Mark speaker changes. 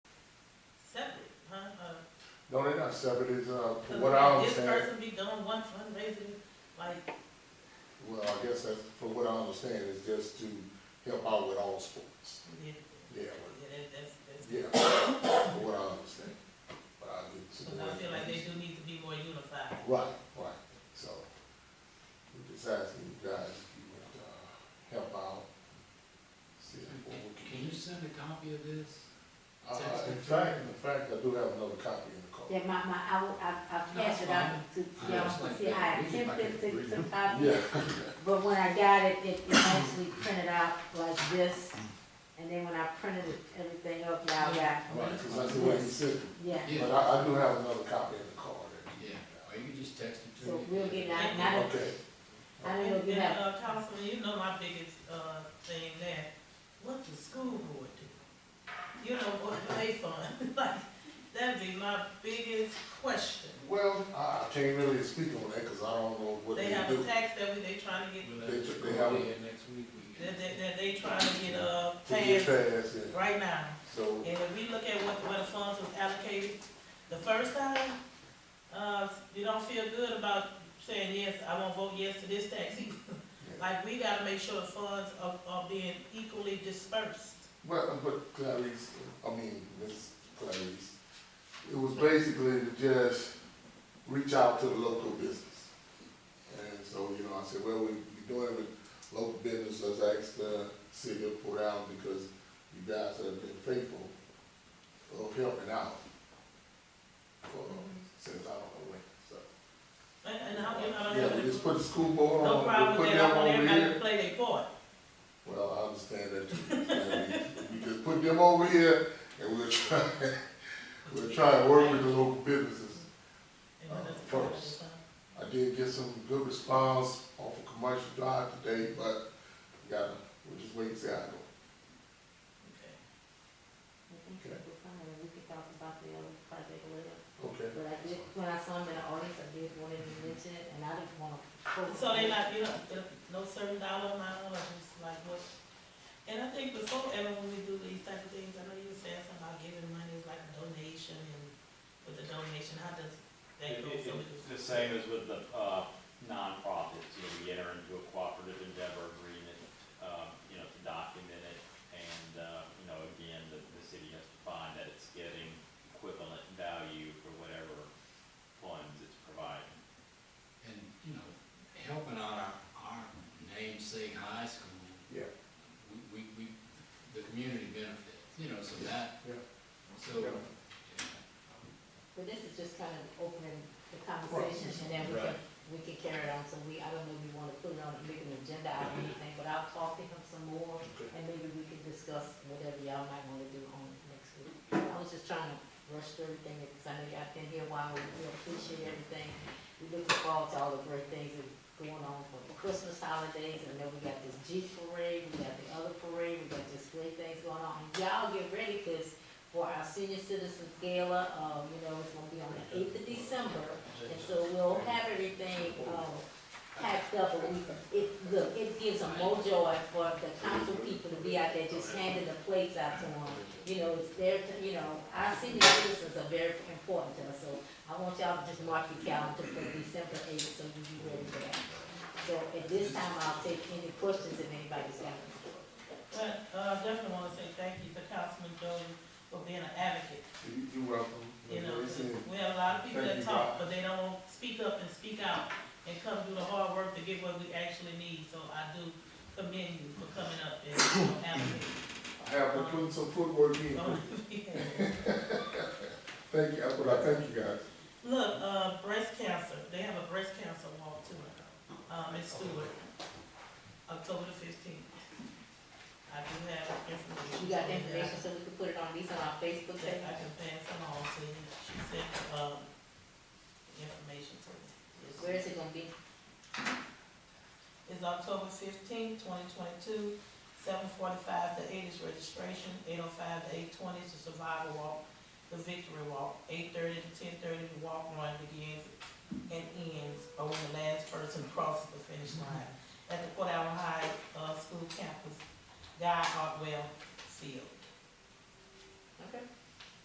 Speaker 1: I've severed it up,
Speaker 2: Cause
Speaker 1: uh, from what I
Speaker 2: Uh, This
Speaker 1: understand.
Speaker 2: person be doing one fundraiser, like,
Speaker 1: Well, I guess that's, from what I understand, is just to help out with all sports.
Speaker 2: yeah,
Speaker 1: Yeah,
Speaker 2: yeah, that, that's, that's.
Speaker 1: yeah, from what I understand. But I did some
Speaker 2: Cause I
Speaker 1: work.
Speaker 2: feel like they do need to be more unified.
Speaker 1: Right, right, so, we're just asking you guys if you would, uh, help out. See if what we
Speaker 3: Can you send a copy of this?
Speaker 1: Uh, in fact, in fact, I do have another copy in the car.
Speaker 4: Yeah, my, my, I, will- I, I
Speaker 3: No,
Speaker 4: passed
Speaker 3: it's
Speaker 4: it out to,
Speaker 3: I
Speaker 4: y'all
Speaker 3: just
Speaker 4: to
Speaker 3: like
Speaker 4: see, I
Speaker 3: that. We can
Speaker 4: attempted
Speaker 3: make it
Speaker 4: to, to
Speaker 3: read.
Speaker 4: copy
Speaker 1: Yeah,
Speaker 4: it, but when I got it, it, it actually printed out like this. And then when I printed it, everything up, y'all got,
Speaker 1: right, because that's the way he said it.
Speaker 4: yeah.
Speaker 3: Yeah.
Speaker 1: But I, I do have another copy in the car. that you-
Speaker 3: Yeah, or you can just text it to me.
Speaker 4: So we'll get it out, not,
Speaker 1: Okay,
Speaker 4: I don't know
Speaker 2: And,
Speaker 4: if you
Speaker 2: and,
Speaker 4: have,
Speaker 2: uh, Councilman, you know my biggest, uh, thing there, what the school board do? You know, what do they fund? Like, that'd be my biggest question.
Speaker 1: well, I, I can't really speak on that, because I don't know what
Speaker 2: They
Speaker 1: they
Speaker 2: have a
Speaker 1: do.
Speaker 2: tax that we, they trying to get,
Speaker 3: We'll
Speaker 1: They
Speaker 3: have
Speaker 1: took-
Speaker 3: to
Speaker 1: they
Speaker 3: go
Speaker 1: have
Speaker 3: in
Speaker 1: it.
Speaker 3: next week. we can-
Speaker 2: that, that, that they trying to get, uh,
Speaker 1: To get
Speaker 2: passed
Speaker 1: past it,
Speaker 2: right now.
Speaker 1: so,
Speaker 2: And if we look at what, what the funds was allocated the first time, uh, you don't feel good about saying, yes, I won't vote yes to this tax either. Like, we gotta make sure the funds are, are being equally dispersed.
Speaker 1: well, but Clarice, I mean, Miss Clarice, it was basically to just reach out to the local business. And so, you know, I said, well, we, we doing it with local business, let's ask the city of Port Allen, because you guys have been faithful of helping out for, since I don't know when, so.
Speaker 2: And, and how, you know, I don't
Speaker 1: Yeah,
Speaker 2: have
Speaker 1: we just put the school board
Speaker 2: no
Speaker 1: on, we're
Speaker 2: problem with
Speaker 1: putting
Speaker 2: that,
Speaker 1: them
Speaker 2: I want
Speaker 1: over
Speaker 2: everybody
Speaker 1: here.
Speaker 2: to play their part.
Speaker 1: Well, I understand that too. We just put them over here and we'll try, we'll try to work with the local businesses.
Speaker 2: And when it's-
Speaker 1: Uh, first. I did get some good response off of Commercial Drive today, but we gotta, we'll just wait and see how it goes.
Speaker 2: Okay.
Speaker 4: we can talk about the other project later.
Speaker 1: Okay.
Speaker 4: But I did, when I saw him in the audience, I did want him to mention it, and I didn't wanna. quote
Speaker 2: So they
Speaker 4: him.
Speaker 2: not, you know, no certain dollar amount, or just like what? And I think before, ever when we do these type of things, I know you were saying something about giving money, it's like a donation, and with the donation, how does that
Speaker 5: It-
Speaker 2: go?
Speaker 5: it-
Speaker 2: So we
Speaker 5: It's
Speaker 2: just-
Speaker 5: the same as with the uh, nonprofits, you know, we enter into a cooperative endeavor agreement, um, you know, to document it. And, uh, you know, again, the, the city has to find that it's getting equivalent value for whatever funds it's providing.
Speaker 3: And, you know, helping out our, our namesake high school.
Speaker 1: Yeah.
Speaker 3: We, we, we, the community benefits, you know, so that,
Speaker 1: Yeah.
Speaker 3: so,
Speaker 1: Yeah.
Speaker 3: yeah,
Speaker 4: But this is just kind of opening the conversation, and then we can, we can carry it on, so we, I don't know if you wanna put it on, make an agenda out of anything, but I'll talk to him some more,
Speaker 1: Okay.
Speaker 4: and maybe we can discuss whatever y'all might wanna do on next week. I was just trying to rush through everything, because I know y'all been here a while, we we appreciate everything. We looking forward to all the great things that's going on for the Christmas holidays, and then we got this Jeep parade, we got the other parade, we got just great things going on. And y'all get ready, because for our senior citizens gala, um, you know, it's gonna be on the eighth of December, and so we'll have everything, um, packed up, and we, it, look, it gives a more joy for the council people to be out there just handing the plates out to them. You know, it's their, you know, our senior citizens are very important to us, so I want y'all to just mark your calendar for December eighth, so you be ready for that. So at this time, I'll take any questions if anybody's got them.
Speaker 2: Well, uh, definitely wanna say thank you to Councilman Jordan for being an advocate,
Speaker 1: You, you welcome.
Speaker 2: you know,
Speaker 1: Like I said,
Speaker 2: we have a lot of people
Speaker 1: Thank
Speaker 2: that
Speaker 1: you,
Speaker 2: talk,
Speaker 1: God.
Speaker 2: but they don't speak up and speak out, and come do the hard work to get what we actually need, so I do commend you for coming up and, you know, advocating.
Speaker 1: I have been putting some footwork in.
Speaker 2: Oh.
Speaker 1: Thank you, but I thank you guys.
Speaker 2: Look, uh, breast cancer, they have a breast cancer walk too, um, in Stewart, October the fifteenth. I do have information.
Speaker 4: You got the information, so we can put it on, these on our Facebook
Speaker 2: That I
Speaker 4: page?
Speaker 2: can pass along to you, she sent, um, information to me.
Speaker 4: Where is it gonna be?
Speaker 2: It's October fifteenth, twenty twenty-two, seven forty-five to eight is registration, eight oh five to eight twenty is the survival walk, the victory walk, eight thirty to ten thirty, the walk run begins and ends, or when the last person crosses the finish line. At the Port Allen High, uh, school campus, Guy Hartwell Field.
Speaker 4: Okay.